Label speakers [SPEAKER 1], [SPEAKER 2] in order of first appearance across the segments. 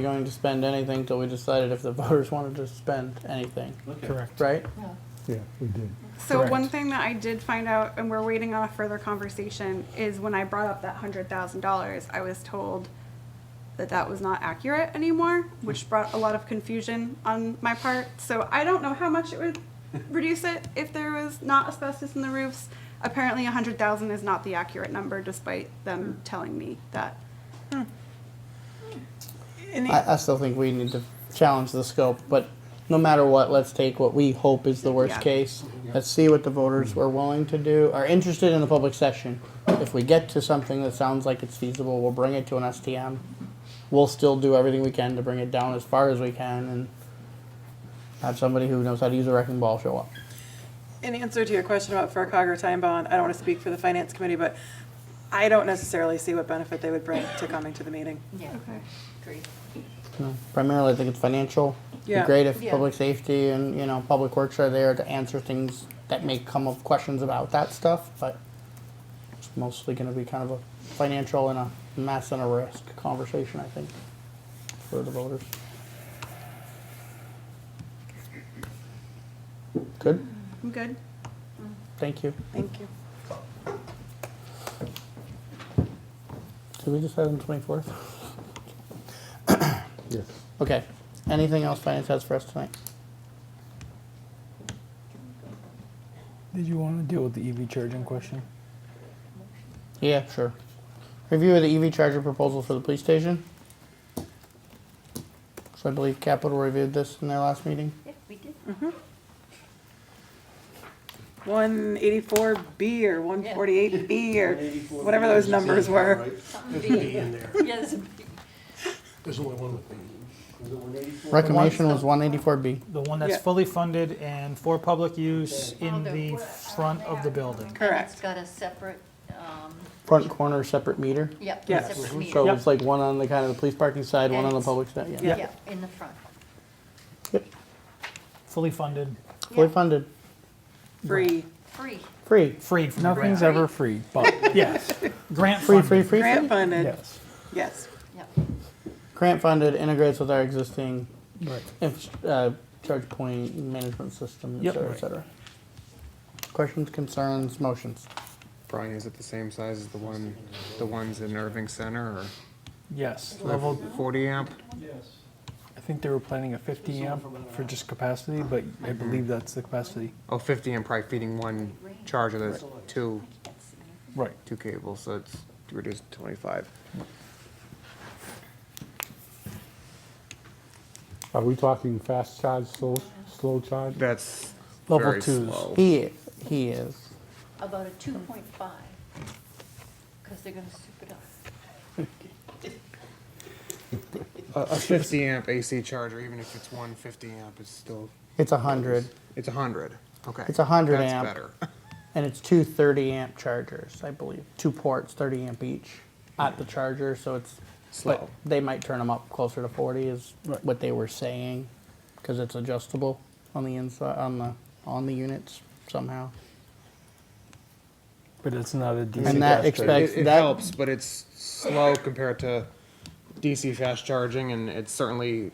[SPEAKER 1] Correct.
[SPEAKER 2] Right.
[SPEAKER 1] Right.
[SPEAKER 2] Yeah.
[SPEAKER 1] Yeah, we did.
[SPEAKER 3] So one
[SPEAKER 1] Correct.
[SPEAKER 3] thing that I did find out, and we're waiting on a further conversation, is when I brought up that hundred thousand dollars, I was told that that was not accurate anymore, which brought a lot of confusion on my part. So I don't know how much it would reduce it if there was not asbestos in the roofs. Apparently, a hundred thousand is not the accurate number, despite them telling me that.
[SPEAKER 2] Any, I, I still think we need to challenge the scope, but no matter what, let's take what we hope is the worst
[SPEAKER 3] Yeah.
[SPEAKER 2] case. Let's see what the voters were willing to do, are interested in the public session. If we get to something that sounds like it's feasible, we'll bring it to an STM. We'll still do everything we can to bring it down as far as we can and have somebody who knows how to use a wrecking ball show up.
[SPEAKER 4] In answer to your question about FERCog or time bond, I don't want to speak for the finance committee, but I don't necessarily see what benefit they would bring to coming to the meeting.
[SPEAKER 5] Yeah,
[SPEAKER 3] Okay.
[SPEAKER 5] agree.
[SPEAKER 2] you know, Hmm. primarily I think it's financial. It'd be
[SPEAKER 4] Yeah.
[SPEAKER 2] great if
[SPEAKER 5] Yeah.
[SPEAKER 2] public safety and, you know, public works are there to answer things that may come up questions about that stuff, but it's mostly gonna be kind of a financial and a mass and a risk conversation, I think, for the voters. Good,
[SPEAKER 3] I'm good.
[SPEAKER 2] thank you.
[SPEAKER 4] Thank you.
[SPEAKER 2] Did we decide on twenty-fourth?
[SPEAKER 1] Yes.
[SPEAKER 2] Okay, anything else finance has for us tonight?
[SPEAKER 1] Did you want to deal with the EV charging question?
[SPEAKER 2] Yeah, sure. Review of the EV charger proposal for the police station. So I believe Capital reviewed this in their last meeting.
[SPEAKER 5] Yeah, we did.
[SPEAKER 4] One eighty-four B or one forty-eight B or whatever those numbers were.
[SPEAKER 5] Something big.
[SPEAKER 6] in there.
[SPEAKER 5] Yes, big.
[SPEAKER 6] There's only one with me.
[SPEAKER 2] Recommendation was one eighty-four B.
[SPEAKER 1] The one that's
[SPEAKER 4] Yeah.
[SPEAKER 1] fully funded and for public use in
[SPEAKER 5] Oh,
[SPEAKER 1] the
[SPEAKER 5] we're-
[SPEAKER 1] front of the building.
[SPEAKER 4] Correct.
[SPEAKER 5] It's got a separate, um,
[SPEAKER 2] Front corner separate meter.
[SPEAKER 5] yep,
[SPEAKER 4] Yes.
[SPEAKER 5] separate
[SPEAKER 2] So
[SPEAKER 5] meter.
[SPEAKER 2] it's like one on the kind of the police parking side, one on the
[SPEAKER 5] And-
[SPEAKER 2] public side, yeah.
[SPEAKER 1] Yeah.
[SPEAKER 5] Yeah, in the front.
[SPEAKER 2] Yep,
[SPEAKER 1] Fully funded,
[SPEAKER 2] Fully
[SPEAKER 5] Yeah,
[SPEAKER 2] funded,
[SPEAKER 4] Free.
[SPEAKER 5] Free.
[SPEAKER 2] free,
[SPEAKER 1] freed from the
[SPEAKER 7] Nothing's
[SPEAKER 1] grant.
[SPEAKER 7] ever free, but
[SPEAKER 1] Yes, grant
[SPEAKER 2] free, free,
[SPEAKER 1] funded.
[SPEAKER 2] free,
[SPEAKER 4] Grant
[SPEAKER 2] free.
[SPEAKER 4] funded,
[SPEAKER 7] yes.
[SPEAKER 4] yes.
[SPEAKER 5] Yep.
[SPEAKER 2] Grant funded integrates with our existing
[SPEAKER 1] Right.
[SPEAKER 2] inf- uh, charge point management system, et
[SPEAKER 1] Yep.
[SPEAKER 2] cetera, et cetera. Questions, concerns, motions?
[SPEAKER 8] Brian, is it the same size as the one, the ones in Irving Center or
[SPEAKER 7] Yes,
[SPEAKER 8] level
[SPEAKER 7] level,
[SPEAKER 8] forty amp?
[SPEAKER 7] I think they were planning a 50 amp for just capacity, but I believe that's the capacity.
[SPEAKER 8] Oh, 50 amp, probably feeding one charger, that's two,
[SPEAKER 7] Right.
[SPEAKER 8] two cables, so it's reduced to twenty-five.
[SPEAKER 1] Are we talking fast charge, slow, slow charge?
[SPEAKER 8] That's
[SPEAKER 1] Level
[SPEAKER 8] very
[SPEAKER 1] twos.
[SPEAKER 8] slow.
[SPEAKER 2] He is, he is.
[SPEAKER 5] About a two point five, because they're gonna soup it up.
[SPEAKER 8] A a fifty amp AC charger, even if it's one 50 amp, is still,
[SPEAKER 2] It's a hundred,
[SPEAKER 8] it's a hundred, okay.
[SPEAKER 2] It's 100
[SPEAKER 8] That's
[SPEAKER 2] amp.
[SPEAKER 8] better.
[SPEAKER 2] and it's two 30 amp chargers, I believe. Two ports, 30 amp each at the charger, so it's But
[SPEAKER 8] Slow.
[SPEAKER 2] they might turn them up closer to 40, is
[SPEAKER 1] Right.
[SPEAKER 2] what they were saying, because it's adjustable on the inside, on the on the units somehow.
[SPEAKER 7] But it's not a DC.
[SPEAKER 2] And that
[SPEAKER 7] fast
[SPEAKER 2] expect-
[SPEAKER 7] charger.
[SPEAKER 8] It, it
[SPEAKER 2] That-
[SPEAKER 8] helps, but it's slow compared to DC fast charging, and it certainly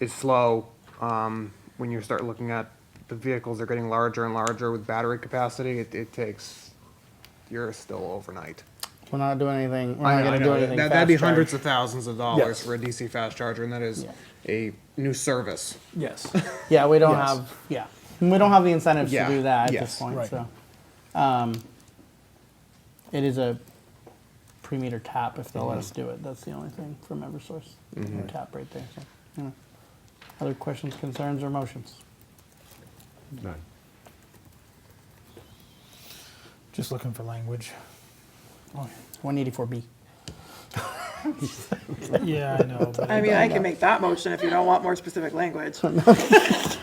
[SPEAKER 8] is slow um, when you start looking at the vehicles are getting larger and larger with battery capacity. It, it takes you're still overnight.
[SPEAKER 2] We're not doing anything. We're not going to do anything.
[SPEAKER 8] That, that'd be
[SPEAKER 2] fast
[SPEAKER 8] hundreds
[SPEAKER 2] charge.
[SPEAKER 8] of thousands of dollars
[SPEAKER 7] Yes.
[SPEAKER 8] for a DC fast charger, and that is
[SPEAKER 2] Yeah.
[SPEAKER 8] a new service.
[SPEAKER 7] Yes.
[SPEAKER 2] Yeah, we don't
[SPEAKER 7] Yes.
[SPEAKER 2] have. Yeah, we don't have the incentives
[SPEAKER 8] Yeah,
[SPEAKER 2] to do that at this
[SPEAKER 8] yes,
[SPEAKER 2] point.
[SPEAKER 7] right.
[SPEAKER 2] So, um, it is a pre-meter tap if they'll let us do it. That's the only thing from EverSource.
[SPEAKER 8] Mm-hmm.
[SPEAKER 2] Tap right there. So, yeah. Other questions, concerns, or motions?
[SPEAKER 1] None. Just looking for language.
[SPEAKER 2] One eighty-four B.
[SPEAKER 1] Yeah, I know. but
[SPEAKER 4] I mean, I can make that motion if you don't want more specific language.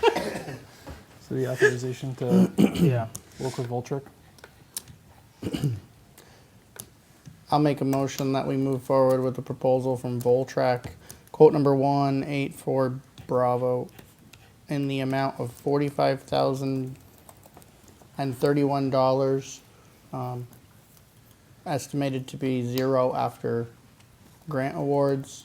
[SPEAKER 7] So the authorization to
[SPEAKER 1] Yeah.
[SPEAKER 7] work with Voltric?
[SPEAKER 2] I'll make a motion that we move forward with the proposal from Voltrac, quote number one eight four Bravo, in the amount of forty-five thousand and thirty-one dollars, um, estimated to be zero after grant awards,